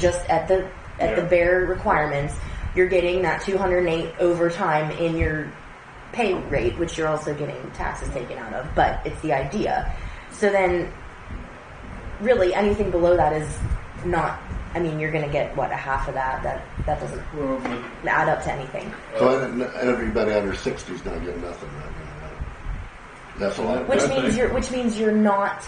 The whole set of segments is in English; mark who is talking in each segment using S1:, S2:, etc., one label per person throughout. S1: just at the at the
S2: Yeah.
S1: bare requirements, you're getting that 208 overtime in your pay rate, which you're also getting taxes taken out of. But it's the idea. So then, really, anything below that is not. I mean, you're going to get what a half of that. That that doesn't
S2: Well, but,
S1: add up to anything.
S3: So and- and everybody under 60 is not getting nothing right now. right? That's a lot.
S1: Which
S2: Good
S1: means
S2: thing.
S1: you're which means you're not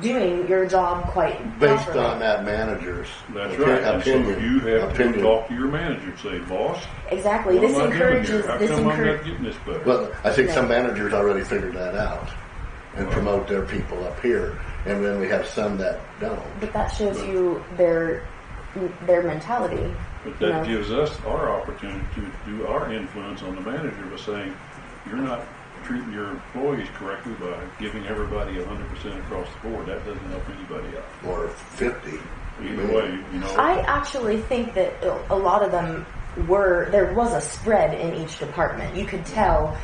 S1: doing your job quite
S3: Based
S1: properly.
S3: on that manager's
S2: that's
S3: opi-
S2: right. And so
S3: opinion.
S2: you have to
S3: opinion.
S2: talk to your manager and say, boss,
S1: Exactly.
S2: what
S1: This
S2: am I doing
S1: encourages
S2: here? How
S1: this
S2: come I'm not
S1: encourages
S2: getting this better?
S3: Well, I think some
S1: Right.
S3: managers already figured that out and
S2: Right.
S3: promote their people up here, and then we have some that don't.
S1: but that shows you their their mentality.
S2: But
S1: you know.
S2: that gives us our opportunity to do our influence on the manager by saying, you're not treating your employees correctly by giving everybody hundred percent across the board. That doesn't help anybody out.
S3: Or 50.
S2: Either way, you know.
S1: I actually think that a lot of them were there was a spread in each department. You could tell,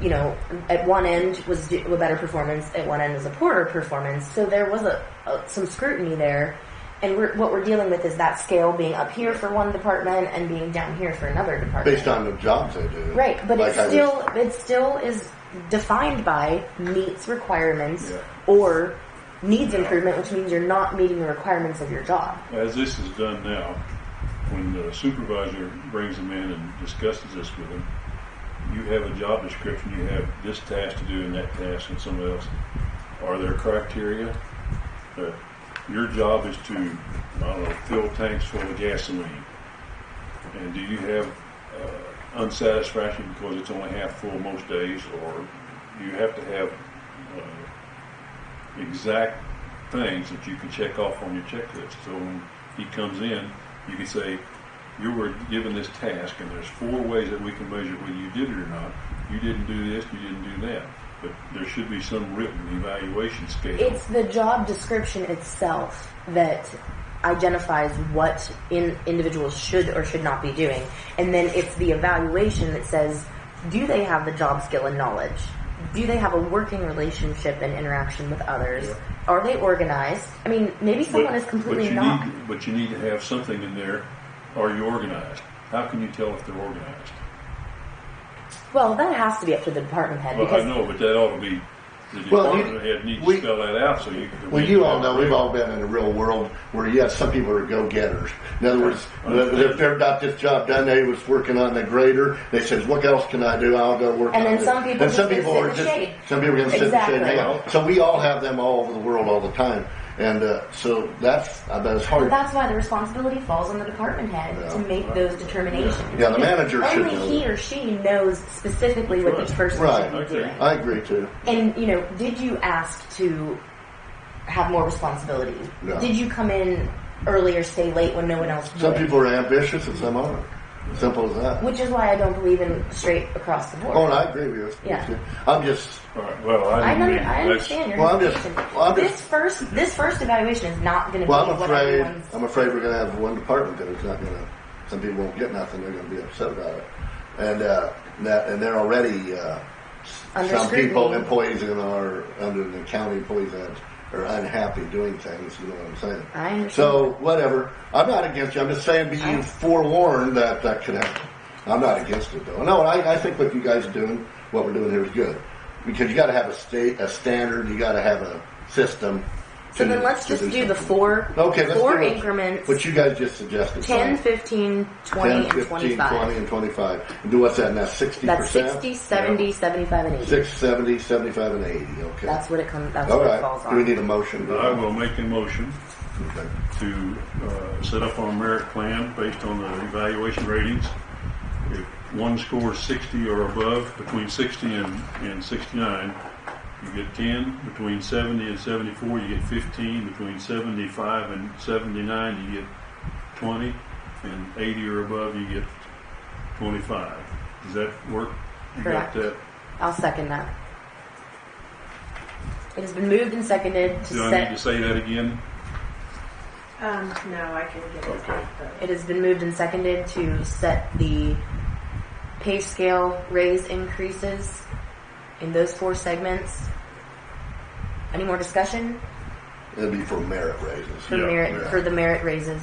S1: you know, at one end was do- a better performance, at one end was a poorer performance. So there was a, a some scrutiny there, and we're, what we're dealing with is that scale being up here for one department and being down here for another department.
S3: Based on the jobs they do.
S1: Right, but
S3: Like
S1: it
S3: I was-
S1: still it still is defined by meets requirements
S2: Yeah.
S1: or needs improvement, which means you're not meeting the requirements of your job.
S2: as this is done now, when the supervisor brings them in and discusses this with them, you have a job description, you have this task to do and that task and somebody else. Are there criteria? that your job is to, I don't know, fill tanks full of gasoline. And do you have uh, unsatisfaction because it's only half full most days, or do you have to have uh, exact things that you can check off on your checklist? So when he comes in, you can say, "You were given this task, and there's four ways that we can measure whether you did it or not. You didn't do this, you didn't do that." But there should be some written evaluation scale.
S1: It's the job description itself that identifies what in individuals should or should not be doing, and then it's the evaluation that says, do they have the job skill and knowledge? Do they have a working relationship and interaction with others? Are they organized? I mean, maybe someone is completely
S2: you
S1: not.
S2: Need, but you need to have something in there. Are you organized? How can you tell if they're organized?
S1: Well, that has to be up to the department head
S2: Well, I
S1: because
S2: know, but that ought to be the
S3: Well, you-
S2: department head needs
S3: we-
S2: to spell that out so you can.
S3: Well, you all know we've all been in the real world where yes, some people are go-getters. In other words, if they're got this job done, they was working on the grader. They says, "What else can I do? I'll go work."
S1: And
S3: on
S1: then
S3: it."
S1: some people
S3: and some
S1: just
S3: people
S1: sit
S3: are
S1: in the
S3: just
S1: shade.
S3: some people are going to sit in the shade. and hang out.
S2: Exactly.
S3: So we all have them all over the world all the time, and uh, so that's I bet it's hard.
S1: that's why the responsibility falls on the department head to
S3: Yeah.
S1: make those determinations.
S3: Yeah, the manager should
S1: Only
S3: know
S1: he
S3: that.
S1: or she knows specifically what each person
S3: Right.
S1: should be
S2: Okay.
S1: doing.
S3: I agree too.
S1: And you know, did you ask to have more responsibility?
S3: No.
S1: Did you come in early or stay late when no one else?
S3: Some
S1: would?
S3: people are ambitious and some aren't. Simple as that.
S1: which is why I don't believe in straight across the board.
S3: Oh, and I agree with you.
S1: Yeah.
S3: I'm just
S2: All right, well, I,
S1: I,
S2: didn't
S1: under- I
S2: mean- that's-
S1: understand your
S3: Well, I'm just-
S1: hesitation.
S3: well, I'm
S1: this
S3: just-
S1: first this first evaluation is not going to
S3: Well,
S1: be
S3: I'm
S1: what
S3: afraid.
S1: everyone's.
S3: I'm afraid we're going to have one department that is not going to. Some people won't get nothing. They're going to be upset about it, and uh, that and they're already. Uh, s-
S1: Under
S3: some people,
S1: scrutiny.
S3: employees in our under the county employees that are unhappy doing things. You know what I'm saying?
S1: I understand.
S3: So whatever. I'm not against you. I'm just saying, be
S1: I-
S3: you forewarned that that could happen. I'm not against it though. No, I, I think what you guys are doing, what we're doing here is good, because you got to have a state, a standard. You got to have a system.
S1: so
S3: to-
S1: then let's
S3: to
S1: just do the
S3: something.
S1: four
S3: Okay, let's
S1: four
S3: do it.
S1: increments.
S3: What you guys just suggested.
S1: 10,
S3: Fine.
S1: 15, 20,
S3: 10,
S1: and 25.
S3: 20, and 25. And do what's that now? 60%?
S1: That's 60, 70, 75, and 80.
S3: 6, 70, 75, and 80. Okay.
S1: That's what it comes. That's
S3: All
S1: what
S3: right.
S1: it falls on.
S3: Do we need a motion?
S2: I will make a motion
S3: Okay.
S2: to uh, set up our merit plan based on the evaluation ratings. If one scores 60 or above, between 60 and, and 69, you get 10. Between 70 and 74, you get 15. Between 75 and 79, you get 20. And 80 or above, you get 25. Does that work? You
S1: Correct.
S2: got that?
S1: I'll second that. It has been moved and seconded to
S2: Do I need
S1: set.
S2: to say that again?
S4: Um, no, I can get it
S2: Okay.
S4: back though.
S1: It has been moved and seconded to set the pay scale raise increases in those four segments. Any more discussion?
S3: It'd be for merit raises.
S1: for
S2: Yeah,
S1: merit
S3: yeah.
S1: for the merit raises.